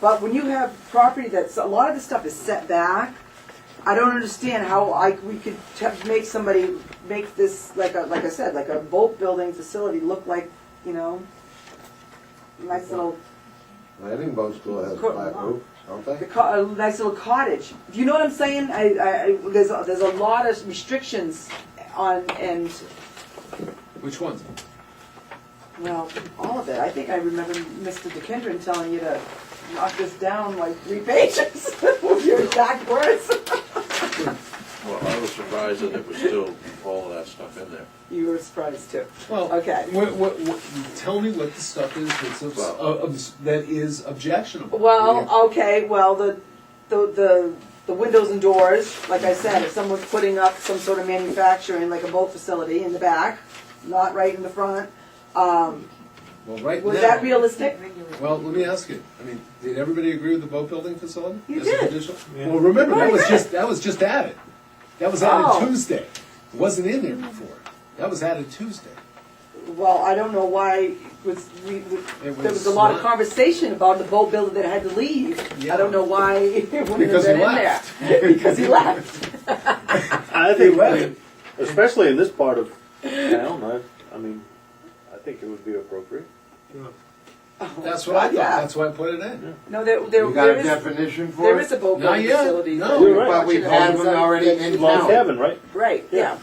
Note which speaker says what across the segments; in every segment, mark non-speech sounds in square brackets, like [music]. Speaker 1: But when you have property that's, a lot of this stuff is set back, I don't understand how I, we could te- make somebody, make this, like, a like I said, like a boat building facility look like, you know, nice little,
Speaker 2: Landing boat school has a
Speaker 1: Cool.
Speaker 2: flat roof, don't
Speaker 1: the
Speaker 2: they?
Speaker 1: co- a nice little cottage. Do you know what I'm saying? I, I, I- there's, a- there's a lot of restrictions on, and,
Speaker 3: Which ones?
Speaker 1: well, all of it. I think I remember Mr. DeKendron telling you to knock this down like three [laughs] pages with your exact words.
Speaker 4: Well, I was surprised that it was still all of that stuff in there.
Speaker 1: You were surprised too.
Speaker 3: Well,
Speaker 1: Okay.
Speaker 3: What, what, what, tell me what the stuff is that's obs-
Speaker 4: Well-
Speaker 3: uh, obs- that is objectionable.
Speaker 1: Well, okay, well, the, the, the, the windows and doors, like I said, if someone's putting up some sort of manufacturing, like a boat facility in the back, not right in the front, um,
Speaker 3: well, right
Speaker 1: was
Speaker 3: now.
Speaker 1: that realistic?
Speaker 3: Well, let me ask you. I mean, did everybody agree with the boat building facility?
Speaker 1: You
Speaker 3: as
Speaker 1: did.
Speaker 3: A conditional? Well, remember that
Speaker 1: Right,
Speaker 3: was
Speaker 1: right.
Speaker 3: just that was just added. That was added
Speaker 1: Oh.
Speaker 3: Tuesday. It wasn't in there before. That was added Tuesday.
Speaker 1: Well, I don't know why, was, we, we-
Speaker 3: It
Speaker 1: there was
Speaker 3: was
Speaker 1: a lot of
Speaker 3: not-
Speaker 1: conversation about the boat builder that had to leave. I
Speaker 3: Yeah.
Speaker 1: don't know why [laughs] it wouldn't have
Speaker 3: Because he
Speaker 1: been in there. [laughs]
Speaker 3: left.
Speaker 1: Because he
Speaker 3: [laughs]
Speaker 1: left.
Speaker 5: I
Speaker 3: They
Speaker 5: think,
Speaker 3: left.
Speaker 5: especially in this part of town, I, I mean, I think it would be appropriate.
Speaker 3: That's what I thought.
Speaker 1: Yeah.
Speaker 3: That's why I put it in.
Speaker 1: No, there, there,
Speaker 2: You got
Speaker 1: there
Speaker 2: a
Speaker 1: is,
Speaker 2: definition for
Speaker 1: there is
Speaker 2: it?
Speaker 1: a boat
Speaker 3: Not
Speaker 1: building
Speaker 3: yet.
Speaker 1: facility.
Speaker 3: No.
Speaker 5: You're right.
Speaker 2: But we've had one already in
Speaker 5: Long
Speaker 2: town.
Speaker 5: Cabin, right?
Speaker 1: Right, yeah.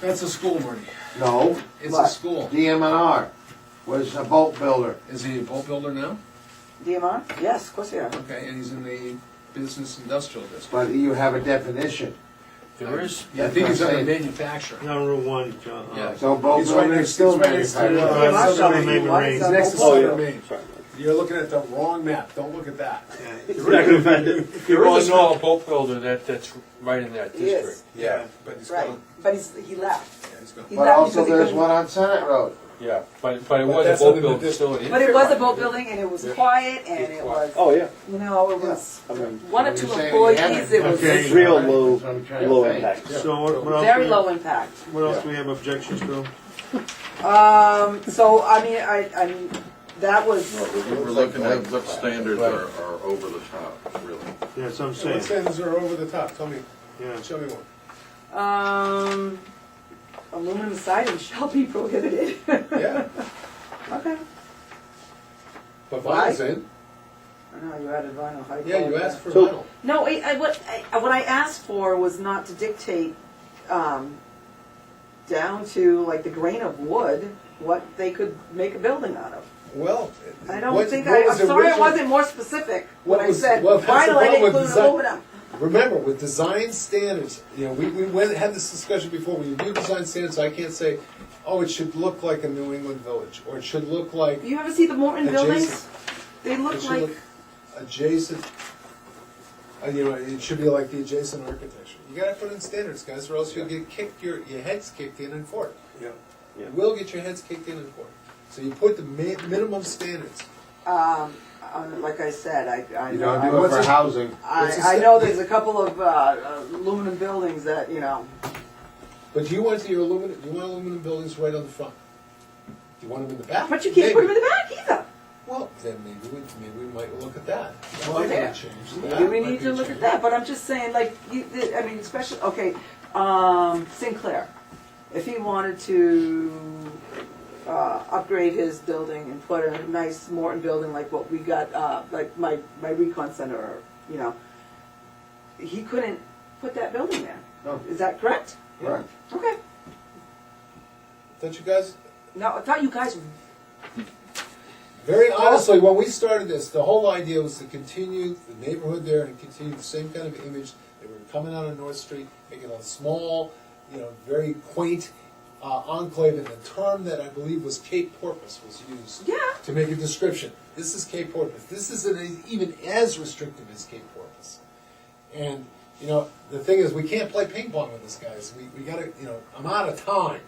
Speaker 3: That's a school, Marty.
Speaker 2: No,
Speaker 3: It's
Speaker 1: What?
Speaker 3: a school.
Speaker 2: DMNR was a boat builder.
Speaker 3: Is he a boat builder now?
Speaker 1: DMR? Yes, of course they are.
Speaker 3: Okay, and he's in the business industrial district.
Speaker 2: But you have a definition.
Speaker 4: There is,
Speaker 3: Yeah, I
Speaker 2: That's
Speaker 3: think
Speaker 2: what
Speaker 3: he's
Speaker 2: I'm
Speaker 3: under
Speaker 2: saying.
Speaker 3: manufacturing.
Speaker 6: On Route One, John. uh,
Speaker 3: Yeah.
Speaker 2: So boat
Speaker 3: It's right
Speaker 2: builder
Speaker 3: next-
Speaker 2: is still
Speaker 3: it's right next to the-
Speaker 2: manufacturing.
Speaker 6: Uh,
Speaker 1: DMR
Speaker 6: Southern
Speaker 1: shop,
Speaker 6: Main
Speaker 1: why is
Speaker 6: Marines.
Speaker 1: that
Speaker 3: Next to
Speaker 1: boat
Speaker 3: Southern
Speaker 1: builder?
Speaker 3: Main. Maine.
Speaker 5: Sorry.
Speaker 3: You're looking at the wrong map. Don't look at that.
Speaker 5: You're not gonna find it.
Speaker 4: you all know a boat builder that, that's right in that
Speaker 1: Yes.
Speaker 4: district.
Speaker 3: Yeah, but he's
Speaker 1: Right,
Speaker 3: gone.
Speaker 1: but he's, he left.
Speaker 3: Yeah, he's gone.
Speaker 1: He
Speaker 2: But
Speaker 1: left
Speaker 2: also
Speaker 1: because he
Speaker 2: there's
Speaker 1: couldn't-
Speaker 2: one on Senate Road.
Speaker 4: Yeah, but, but it
Speaker 3: But
Speaker 4: was
Speaker 3: that's
Speaker 4: a boat
Speaker 3: under the
Speaker 4: building
Speaker 3: district.
Speaker 4: facility.
Speaker 1: But it was a boat building and it was quiet and it was,
Speaker 5: Oh, yeah,
Speaker 1: you know, it was
Speaker 5: I mean,
Speaker 1: one or
Speaker 2: You're
Speaker 1: two
Speaker 2: saying you
Speaker 1: employees,
Speaker 2: haven't.
Speaker 1: it was
Speaker 6: Okay.
Speaker 5: it's real low,
Speaker 2: That's what I'm trying to
Speaker 5: low
Speaker 2: think.
Speaker 5: impact.
Speaker 6: So what, what else?
Speaker 1: very
Speaker 6: we-
Speaker 1: low impact.
Speaker 6: What else do we have objections to?
Speaker 1: Um, so, I mean, I, I mean, that
Speaker 4: No,
Speaker 1: was,
Speaker 4: we're- We're looking at what standards are, are over the top, really.
Speaker 6: Yeah, some
Speaker 3: What
Speaker 6: say,
Speaker 3: standards are over the top? Tell me,
Speaker 6: yeah.
Speaker 3: show me one.
Speaker 1: um, aluminum siding [laughs] shall be prohibited. [laughs]
Speaker 3: Yeah,
Speaker 1: Okay.
Speaker 3: but vinyls in.
Speaker 1: I know, you added vinyl. how do
Speaker 3: Yeah,
Speaker 1: call
Speaker 3: you
Speaker 1: it
Speaker 3: asked
Speaker 1: that?
Speaker 3: for
Speaker 5: So-
Speaker 3: vinyl.
Speaker 1: No, wait, I, what, I, what I asked for was not to dictate, um, down to like the grain of wood, what they could make a building out of.
Speaker 3: Well.
Speaker 1: I don't
Speaker 3: what-
Speaker 1: think
Speaker 3: what
Speaker 1: I,
Speaker 3: was
Speaker 1: I'm sorry I
Speaker 3: original-
Speaker 1: wasn't more specific when
Speaker 3: What
Speaker 1: I
Speaker 3: was-
Speaker 1: said
Speaker 3: well, that's the
Speaker 1: vinyl, I
Speaker 3: problem
Speaker 1: didn't
Speaker 3: with
Speaker 1: include
Speaker 3: design.
Speaker 1: aluminum.
Speaker 3: Remember, with design standards, you know, we, we went, had this discussion before, when you do design standards, I can't say, oh, it should look like a New England village, or it should look like,
Speaker 1: You ever see the Morton
Speaker 3: Adjacent.
Speaker 1: buildings? They
Speaker 3: it
Speaker 1: look
Speaker 3: should
Speaker 1: like,
Speaker 3: look adjacent, uh, you know, it should be like the adjacent architecture. You gotta put in standards, guys, or else you'll get kicked, your, your heads kicked in and forth.
Speaker 6: Yeah.
Speaker 5: Yeah.
Speaker 3: You will get your heads kicked in and forth. So you put the mi- minimum standards.
Speaker 1: um, uh, like I said, I, I
Speaker 2: You
Speaker 1: know,
Speaker 2: don't
Speaker 1: I
Speaker 2: do it
Speaker 3: what's
Speaker 2: for
Speaker 3: it-
Speaker 2: housing.
Speaker 3: what's the
Speaker 1: I, I
Speaker 3: step?
Speaker 1: know there's a couple of, uh, aluminum buildings that, you know,
Speaker 3: But you want your aluminum, you want aluminum buildings right on the front. You want them in the back?
Speaker 1: but you can't put them in
Speaker 3: Maybe.
Speaker 1: the back either.
Speaker 3: Well, then maybe we, maybe we might look at that. That
Speaker 1: Well,
Speaker 3: might be a
Speaker 1: yeah.
Speaker 3: change.
Speaker 1: Maybe
Speaker 3: That
Speaker 1: we
Speaker 3: might
Speaker 1: need
Speaker 3: be
Speaker 1: to
Speaker 3: a
Speaker 1: look at
Speaker 3: change.
Speaker 1: that, but I'm just saying, like, you, I mean, especially, okay, um, Sinclair, if he wanted to, uh, upgrade his building and put a nice Morton building like what we got, uh, like my, my recon center, or, you know, he couldn't put that building there.
Speaker 2: No.
Speaker 1: Is that correct?
Speaker 2: Right.
Speaker 1: Okay.
Speaker 3: Don't you guys,
Speaker 1: Now, I thought you guys,
Speaker 3: very honestly, when we started this, the whole idea was to continue the neighborhood there and continue the same kind of image that we were coming out of North Street, making a small, you know, very quaint uh, enclave. And the term that I believe was Cape Porpoise was used.
Speaker 1: yeah,
Speaker 3: to make a description. This is Cape Porpoise. This isn't even as restrictive as Cape Porpoise. And, you know, the thing is, we can't play ping pong with this, guys. We, we gotta, you know, I'm out of time.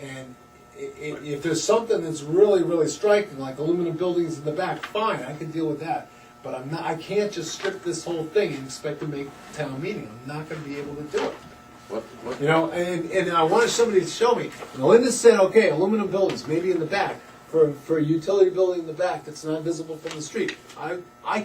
Speaker 3: And i- i- if there's something that's really, really striking, like aluminum buildings in the back, fine, I can deal with that. But I'm not, I can't just strip this whole thing and expect to make town meeting. I'm not gonna be able to do it.
Speaker 4: What, what,
Speaker 3: You know, and, and I wanted somebody to show me. And Linda said, okay, aluminum buildings, maybe in the back. for, for a utility building in the back that's not visible from the street. I, I